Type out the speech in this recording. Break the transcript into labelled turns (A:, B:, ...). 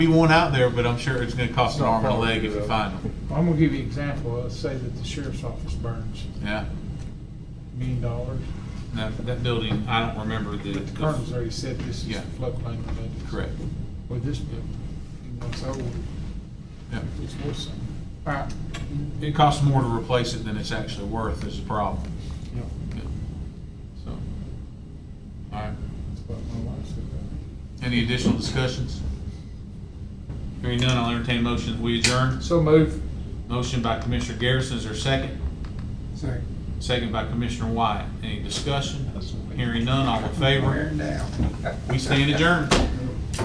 A: be one out there, but I'm sure it's gonna cost an arm and a leg if you
B: Yeah.
A: find them,
B: I'm gonna give you an example, let's say that the sheriff's office burns
A: yeah.
B: a million dollars.
A: That, that building, I don't remember the.
B: But the colonel's already said this is
A: Yeah.
B: floodplain related.
A: Correct,
B: With this building, and once old,
A: yeah.
B: it's worth something. All right,
A: It costs more to replace it than it's actually worth is the problem,
B: yeah,
A: yeah. So, all right.
B: that's what my wife said.
A: Any additional discussions? Hearing none, I'll entertain a motion. that We adjourn.
B: So move.
A: Motion by Commissioner Garrison is there a second.
B: Second.
A: Second by Commissioner Wyatt. Any discussion? Hearing none, all in favor?
B: now.
A: We stand adjourned.